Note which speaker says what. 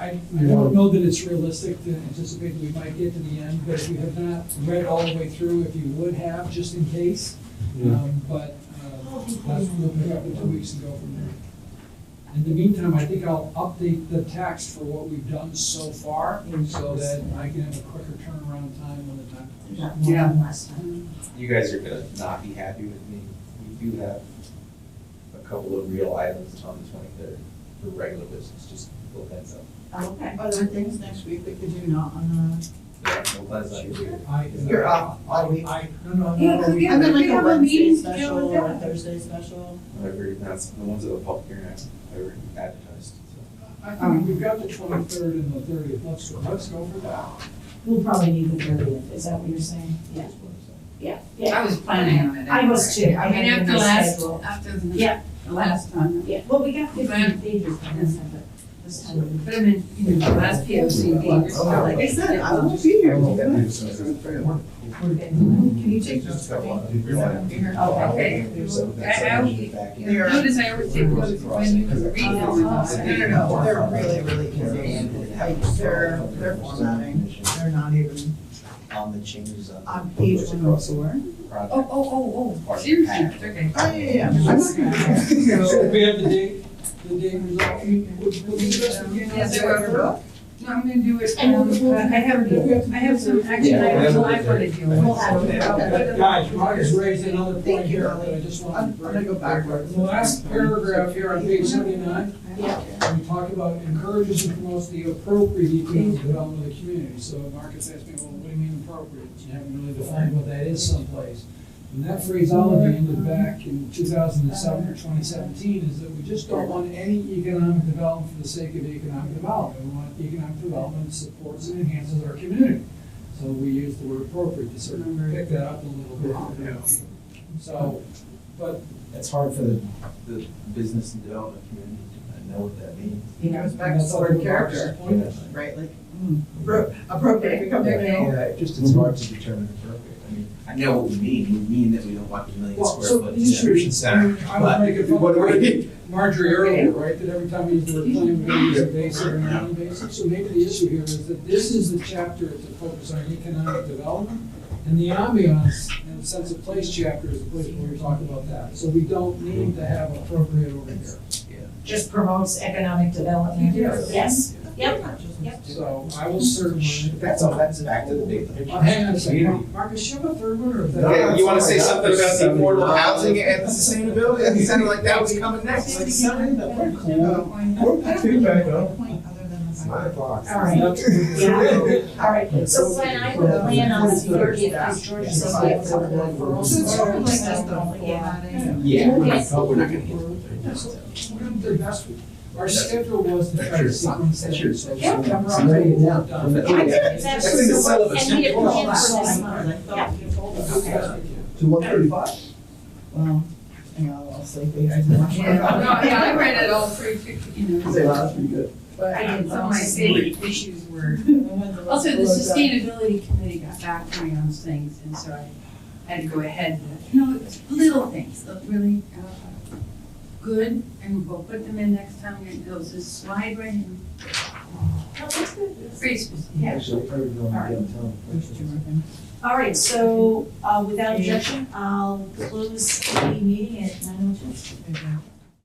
Speaker 1: I, I don't know that it's realistic to anticipate we might get to the end, but if you have not read it all the way through, if you would have, just in case. Um, But, uh, that's, we'll pick up in two weeks and go from there. In the meantime, I think I'll update the text for what we've done so far, so that I can have a quicker turnaround time when the time comes.
Speaker 2: Yeah.
Speaker 3: You guys are gonna not be happy with me. We do have a couple of real items on the twenty-third for regular business, just a little heads up.
Speaker 4: Okay.
Speaker 2: Are there things next week that could do not on
Speaker 3: Yeah, well, that's not your-
Speaker 1: I-
Speaker 2: You're off all week.
Speaker 1: I, no, no, no.
Speaker 2: the?
Speaker 4: Yeah, 'cause we have-
Speaker 2: I mean, like
Speaker 4: we have a
Speaker 2: Wednesday
Speaker 4: meeting to deal
Speaker 2: Special
Speaker 4: with
Speaker 2: or a
Speaker 4: that.
Speaker 2: Thursday special.
Speaker 3: Whatever, that's the ones that are public hearing, I've ever advertised, so.
Speaker 1: I think we've got the twenty-third and the thirtieth, let's, let's go for that.
Speaker 4: We'll probably need the thirtieth, is that what you're saying? Yeah,
Speaker 3: that's what I'm saying.
Speaker 4: yeah,
Speaker 5: I
Speaker 4: yeah,
Speaker 5: was planning on it.
Speaker 4: I was too. I
Speaker 5: I
Speaker 4: had
Speaker 5: mean,
Speaker 4: it in
Speaker 5: after
Speaker 4: my
Speaker 5: last,
Speaker 4: schedule.
Speaker 5: after the,
Speaker 4: Yeah.
Speaker 5: the last time,
Speaker 4: yeah. Well, we got fifteen
Speaker 5: Ma'am.
Speaker 4: pages by this time, but this time.
Speaker 5: but I mean, you know, the last P O C D, you're still like.
Speaker 2: Like I said, I won't be here.
Speaker 4: we're good.
Speaker 5: Can you take those?
Speaker 3: Got a
Speaker 5: for me?
Speaker 3: lot of real-
Speaker 4: Oh,
Speaker 5: okay. I- I will be-
Speaker 3: Back in.
Speaker 5: You know, Notice I always take those when you can read them. No, no, no.
Speaker 2: They're really, really convenient. Like, they're, they're formatting. They're not even
Speaker 3: On the changes of.
Speaker 2: on page one oh four.
Speaker 3: Project.
Speaker 5: Oh, oh, oh, oh, seriously, okay.
Speaker 2: Oh, yeah, yeah, yeah. I'm not gonna be here.
Speaker 1: So we have the date, the date resolved, we, we, we just again.
Speaker 5: Yeah, so we're- No, I'm gonna do it,
Speaker 4: And
Speaker 5: um,
Speaker 4: we'll- we'll-
Speaker 5: I have, I have some action
Speaker 3: Yeah,
Speaker 5: items
Speaker 3: we'll-
Speaker 5: I wanna deal with.
Speaker 4: We'll have it.
Speaker 5: I'll put them-
Speaker 1: Guys, Mark has raised another point
Speaker 2: Thank you,
Speaker 1: here that I
Speaker 2: Ellie.
Speaker 1: just
Speaker 2: I'm
Speaker 1: wanted to
Speaker 2: gonna
Speaker 1: bring.
Speaker 2: go backwards.
Speaker 1: The last paragraph here on page seventy-nine,
Speaker 4: Yeah.
Speaker 1: we talk about encourages and promotes the appropriate economic development of the community. So Mark has asked me, well, what do you mean appropriate? You haven't really defined what that is someplace. And that phraseology ended back in two thousand and seven or twenty seventeen, is that we just don't want any economic development for the sake of economic development. We want economic development that supports and enhances our community. So we use the word appropriate to sort of pick that up a little bit. So, but
Speaker 3: It's hard for the, the business and development community to know what that means.
Speaker 2: It goes back to
Speaker 1: that's
Speaker 2: the
Speaker 1: our
Speaker 2: word character, right? Like, mm, appro- appropriate becomes male.
Speaker 3: Yeah, just it's hard to determine appropriate, I mean. I know what we mean, we mean that we don't want a million
Speaker 1: Well,
Speaker 3: square
Speaker 1: so
Speaker 3: foot
Speaker 1: the issue
Speaker 3: distribution
Speaker 1: is, I
Speaker 3: center.
Speaker 1: mean, I would make it
Speaker 3: But what do
Speaker 1: fun,
Speaker 3: we-
Speaker 1: Marjorie earlier, right, that every time we use the word plan, we're gonna use a base or an non basic. So maybe the issue here is that this is the chapter to focus on economic development, and the ambiance and sense of place chapter is the place where we talk about that. So we don't need to have appropriate over here.
Speaker 4: Just promotes economic development.
Speaker 1: Yes.
Speaker 4: Yes, yep,
Speaker 1: So I will certainly,
Speaker 3: That's all, that's back to the big
Speaker 1: uh,
Speaker 3: picture.
Speaker 1: hang on a second, Marcus, you have a third one or? is that-
Speaker 3: Okay, you wanna say something about the affordable housing and the sustainability, it sounded like that was coming next. Like, something that we're cool.
Speaker 2: I don't really have a point other than the fact-
Speaker 3: o'clock.
Speaker 4: all right,
Speaker 1: Yeah.
Speaker 4: all right. So Glenn, I would plan on the thirtieth, because George said we have a couple of referrals.
Speaker 2: So it's sort of like just the
Speaker 4: So, yeah.
Speaker 2: formatting.
Speaker 3: Yeah, we're
Speaker 4: Yes.
Speaker 3: not, we're not gonna get to it.
Speaker 1: We're gonna do best we- Our schedule was to try to sequence
Speaker 3: That's
Speaker 1: it,
Speaker 3: your-
Speaker 1: so
Speaker 3: Yeah.
Speaker 1: September, October, done.
Speaker 3: Yeah.
Speaker 4: I did
Speaker 3: That's
Speaker 4: exactly
Speaker 3: in the
Speaker 4: what-
Speaker 3: syllabus.
Speaker 4: And we had planned for
Speaker 2: Last
Speaker 4: this
Speaker 2: month, I
Speaker 4: month.
Speaker 2: thought you told us.
Speaker 3: To one thirty-five?
Speaker 2: Well, you know, I'll sleep, you guys know.
Speaker 5: No, yeah, I read it all through, you know,
Speaker 3: that's pretty good.
Speaker 5: but I did, some of my big issues were Also, the sustainability committee got back to me on things, and so I had to go ahead with, no, it was little things, look really, uh, good, and we'll put them in next time, and there was this slide right in. No, it's good, it's pretty specific, yeah.
Speaker 3: Actually, probably going downtown.
Speaker 4: All right, so, uh, without objection, I'll close the meeting at nine oh two.